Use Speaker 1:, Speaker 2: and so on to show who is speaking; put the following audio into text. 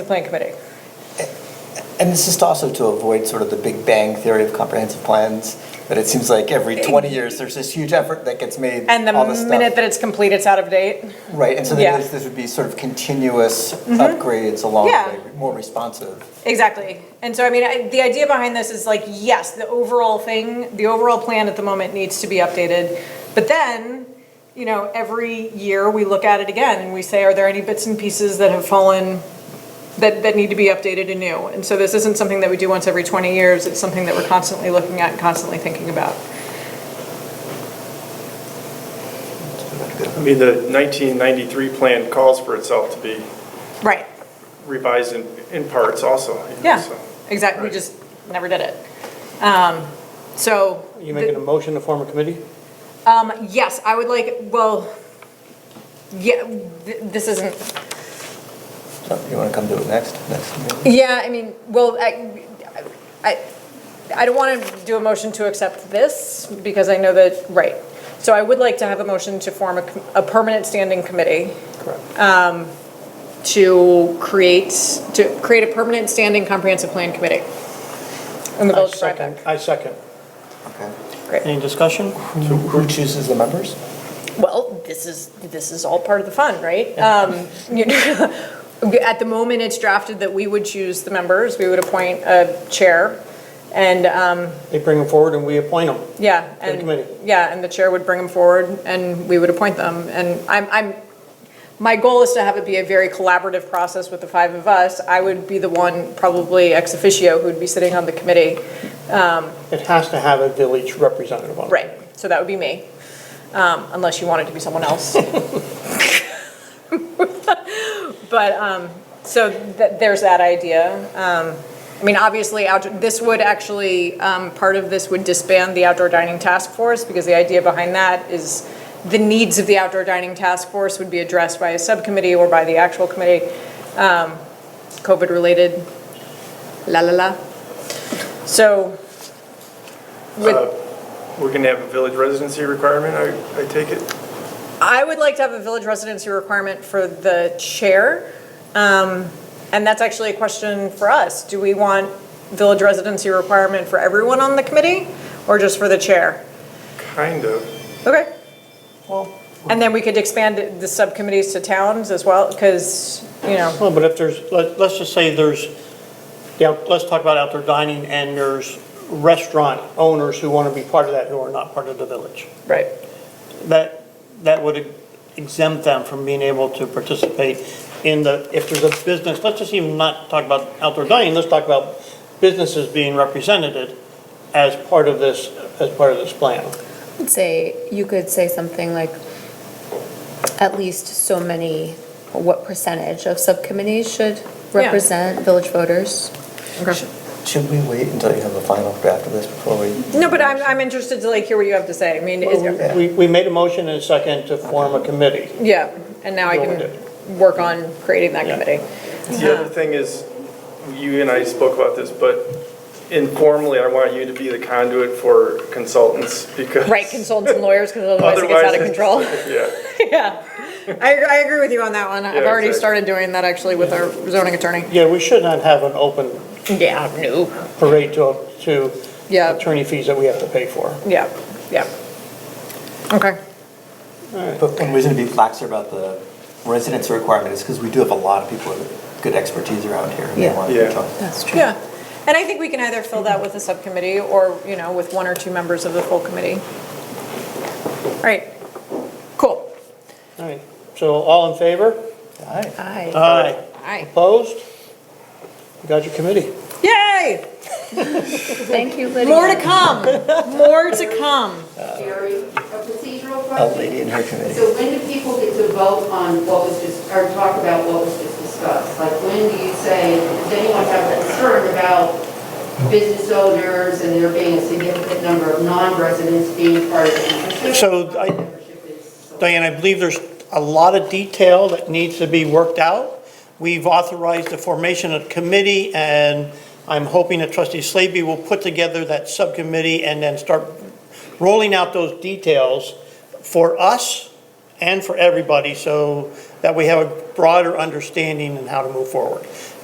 Speaker 1: The plan committee.
Speaker 2: And this is also to avoid sort of the big bang theory of comprehensive plans, that it seems like every 20 years, there's this huge effort that gets made,
Speaker 1: And the
Speaker 2: all this
Speaker 1: minute
Speaker 2: stuff.
Speaker 1: that it's complete, it's out of date.
Speaker 2: Right, and so
Speaker 1: Yeah. Mm-hmm.
Speaker 2: then this, this would be sort of continuous upgrades along
Speaker 1: Yeah.
Speaker 2: the way, more responsive.
Speaker 1: Exactly. And so, I mean, I, the idea behind this is like, yes, the overall thing, the overall plan at the moment needs to be updated. But then, you know, every year we look at it again and we say, are there any bits and pieces that have fallen that, that need to be updated anew? And so this isn't something that we do once every 20 years. It's something that we're constantly looking at and constantly thinking about.
Speaker 3: I mean, the 1993 plan calls for itself to be
Speaker 1: Right.
Speaker 3: revised in, in parts also. you know,
Speaker 1: Yeah,
Speaker 3: so.
Speaker 1: exactly. We
Speaker 3: Right.
Speaker 1: just never did it. Um, so.
Speaker 4: Are you making a motion to form a committee?
Speaker 1: Um, yes, I would like, well, yeah, th- this isn't,
Speaker 2: So You want to come to it next, next meeting?
Speaker 1: yeah, I mean, well, I, I, I don't want to do a motion to accept this because I know that, right. So I would like to have a motion to form a, com- a permanent standing committee um,
Speaker 2: Correct.
Speaker 1: to create, to create a permanent standing comprehensive plan committee in the
Speaker 4: I
Speaker 1: village of
Speaker 4: second.
Speaker 1: Rhinebeck.
Speaker 4: I second.
Speaker 2: Okay.
Speaker 1: Great.
Speaker 4: Any discussion?
Speaker 2: Who who chooses the members?
Speaker 1: Well, this is, this is all part of the fun, right? Um, you know, At the moment, it's drafted that we would choose the members, we would appoint a chair, and, um,
Speaker 4: They bring them forward and we appoint them.
Speaker 1: yeah.
Speaker 4: To the
Speaker 1: and-
Speaker 4: committee.
Speaker 1: Yeah, and the chair would bring them forward, and we would appoint them. And I'm, I'm, my goal is to have it be a very collaborative process with the five of us. I would be the one, probably ex officio, who would be sitting on the committee.
Speaker 4: It has to have a village representative on it.
Speaker 1: Right, so that would be me, um, unless you want it to be someone else. But, um, so th- there's that idea. Um, I mean, obviously, outdoor, this would actually, um, part of this would disband the outdoor dining task force because the idea behind that is the needs of the outdoor dining task force would be addressed by a subcommittee or by the actual committee, um, COVID-related, la la la. So with.
Speaker 3: Uh, We're gonna have a village residency requirement, I, I take it?
Speaker 1: I would like to have a village residency requirement for the chair. Um, And that's actually a question for us. Do we want village residency requirement for everyone on the committee or just for the chair?
Speaker 3: Kind of.
Speaker 1: Okay. And then we could expand it- the subcommittees to towns as well, because, you know,
Speaker 4: Well, but if there's, let- let's just say there's, the out- let's talk about outdoor dining and there's restaurant owners who want to be part of that who are not part of the village.
Speaker 1: right.
Speaker 4: That, that would exempt them from being able to participate in the, if there's a business, let's just even not talk about outdoor dining, let's talk about businesses being represented as part of this, as part of this plan.
Speaker 5: say, you could say something like, at least so many, what percentage of subcommittees should represent village voters?
Speaker 2: Should we wait until you have a final draft of this before we?
Speaker 1: No, but I'm, I'm interested to like hear what you have to say. I mean, is-
Speaker 4: We, we made a motion and a second to form a committee.
Speaker 1: yeah, and now I
Speaker 4: Yeah.
Speaker 1: can work on creating that
Speaker 4: Yeah.
Speaker 1: committee.
Speaker 3: The
Speaker 1: Uh-huh.
Speaker 3: other thing is, you and I spoke about this, but informally, I want you to be the conduit for consultants because.
Speaker 1: Right, consultants and lawyers, because otherwise it gets out of control.
Speaker 3: Otherwise, Yeah.
Speaker 1: Yeah, I, I agree with you on that one. I've
Speaker 3: Yeah,
Speaker 1: already
Speaker 3: exactly.
Speaker 1: started doing that actually with our zoning attorney.
Speaker 4: Yeah, we should not have an open
Speaker 1: Yeah, no.
Speaker 4: parade to, to
Speaker 1: Yeah.
Speaker 4: attorney fees that we have to pay for.
Speaker 1: Yeah, yeah. Okay.
Speaker 2: But one reason to be laxer about the residency requirement is because we do have a lot of people with good expertise around here. and they
Speaker 5: Yeah.
Speaker 2: want to
Speaker 3: Yeah.
Speaker 2: talk.
Speaker 5: That's true.
Speaker 1: Yeah, and I think we can either fill that with a subcommittee or, you know, with one or two members of the full committee. All right, cool.
Speaker 4: All right, so all in favor?
Speaker 2: All right.
Speaker 5: Aye.
Speaker 4: Aye.
Speaker 1: All right.
Speaker 4: Opposed? You got your committee.
Speaker 1: Yay,
Speaker 5: Thank you, Lydia.
Speaker 1: more to come, more to come.
Speaker 6: Jerry, a procedural
Speaker 2: A Oh, lady in
Speaker 6: question.
Speaker 2: her committee.
Speaker 6: So when do people get to vote on what was just, or talk about what was just discussed? Like, when do you say, does anyone have a concern about business owners and there being a significant number of non-residents being part of the membership?
Speaker 4: So I-
Speaker 6: Membership is so-
Speaker 4: Diane, I believe there's a lot of detail that needs to be worked out. We've authorized the formation of committee, and I'm hoping that trustee Slavy will put together that subcommittee and then start rolling out those details for us and for everybody, so that we have a broader understanding and how to move forward.